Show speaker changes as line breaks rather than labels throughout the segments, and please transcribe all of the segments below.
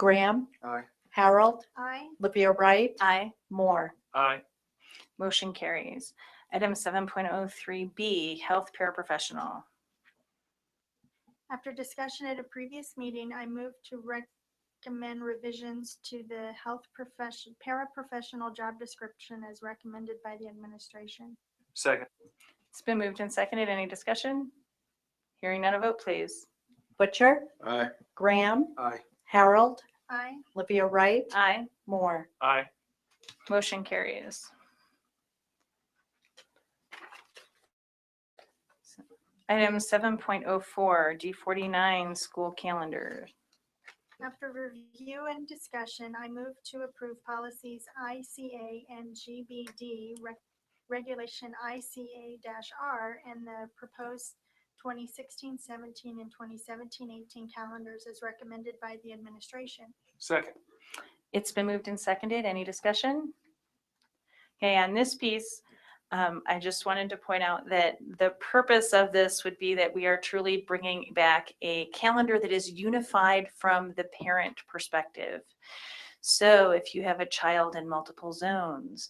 Graham,
Aye.
Harold,
Aye.
Livia Wright,
Aye.
Moore.
Aye.
Motion carries. Item seven point oh three B, health paraprofessional.
After discussion at a previous meeting, I moved to recommend revisions to the health profession, paraprofessional job description as recommended by the administration.
Second.
It's been moved and seconded. Any discussion? Hearing none, a vote please.
Butcher,
Aye.
Graham,
Aye.
Harold,
Aye.
Livia Wright,
Aye.
Moore.
Aye.
Motion carries. Item seven point oh four, D forty-nine, school calendar.
After review and discussion, I move to approve policies ICA and GBD, rec- regulation ICA-R, and the proposed 2016-17 and 2017-18 calendars as recommended by the administration.
Second.
It's been moved and seconded. Any discussion? Okay, on this piece, um, I just wanted to point out that the purpose of this would be that we are truly bringing back a calendar that is unified from the parent perspective. So if you have a child in multiple zones,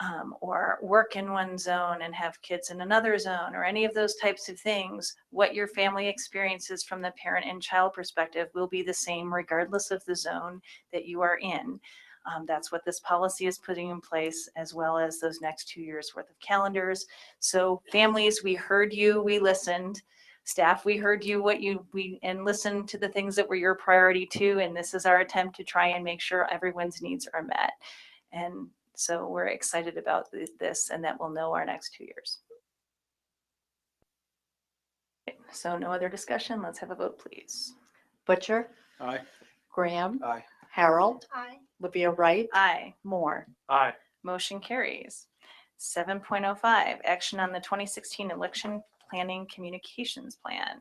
um, or work in one zone and have kids in another zone, or any of those types of things, what your family experiences from the parent and child perspective will be the same regardless of the zone that you are in. Um, that's what this policy is putting in place, as well as those next two years worth of calendars. So families, we heard you, we listened. Staff, we heard you, what you, we, and listened to the things that were your priority too. And this is our attempt to try and make sure everyone's needs are met. And so we're excited about th- this and that we'll know our next two years. So no other discussion. Let's have a vote, please.
Butcher,
Aye.
Graham,
Aye.
Harold,
Aye.
Livia Wright,
Aye.
Moore.
Aye.
Motion carries. Seven point oh five, action on the twenty sixteen election planning communications plan.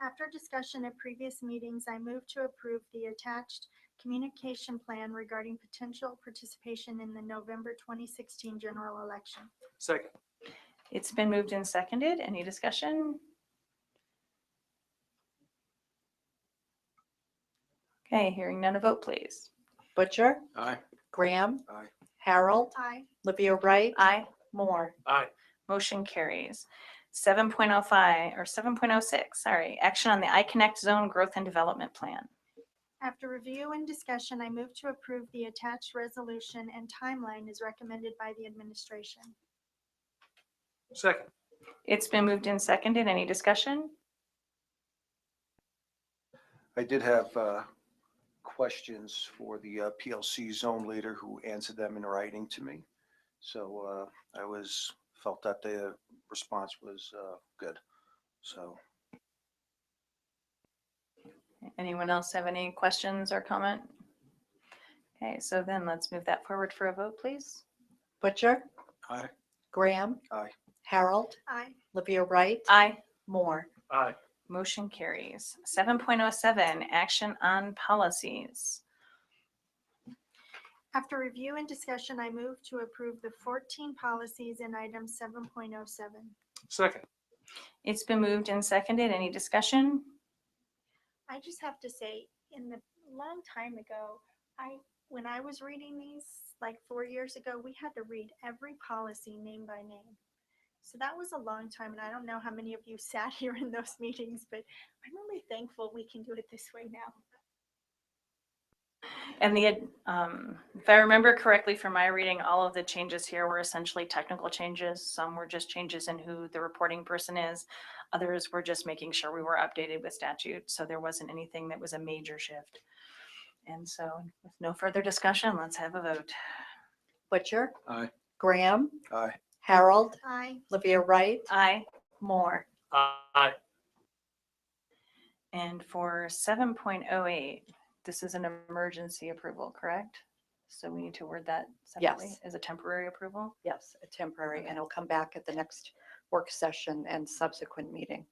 After discussion at previous meetings, I move to approve the attached communication plan regarding potential participation in the November 2016 general election.
Second.
It's been moved and seconded. Any discussion? Okay, hearing none, a vote please.
Butcher,
Aye.
Graham,
Aye.
Harold,
Aye.
Livia Wright,
Aye.
Moore.
Aye.
Motion carries. Seven point oh five, or seven point oh six, sorry, action on the iConnect Zone Growth and Development Plan.
After review and discussion, I move to approve the attached resolution and timeline as recommended by the administration.
Second.
It's been moved and seconded. Any discussion?
I did have uh, questions for the uh, PLC zone leader who answered them in writing to me. So uh, I was, felt that the response was uh, good. So
Anyone else have any questions or comment? Okay, so then let's move that forward for a vote, please.
Butcher,
Aye.
Graham,
Aye.
Harold,
Aye.
Livia Wright,
Aye.
Moore.
Aye.
Motion carries. Seven point oh seven, action on policies.
After review and discussion, I move to approve the 14 policies in item 7.07.
Second.
It's been moved and seconded. Any discussion?
I just have to say, in the long time ago, I, when I was reading these, like four years ago, we had to read every policy name by name. So that was a long time, and I don't know how many of you sat here in those meetings, but I'm really thankful we can do it this way now.
And the, um, if I remember correctly from my reading, all of the changes here were essentially technical changes. Some were just changes in who the reporting person is. Others were just making sure we were updated with statute, so there wasn't anything that was a major shift. And so with no further discussion, let's have a vote.
Butcher,
Aye.
Graham,
Aye.
Harold,
Aye.
Livia Wright,
Aye.
Moore.
Aye.
And for seven point oh eight, this is an emergency approval, correct? So we need to word that separately
Yes.
as a temporary approval?
Yes, a temporary, and
Okay.
it'll come back at the next work session and subsequent meeting.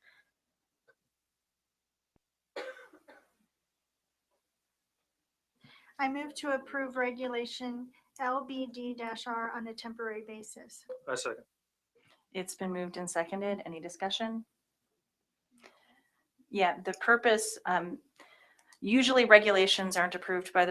I move to approve regulation LBD-R on a temporary basis.
I second.
It's been moved and seconded. Any discussion? Yeah, the purpose, um, Usually regulations aren't approved by the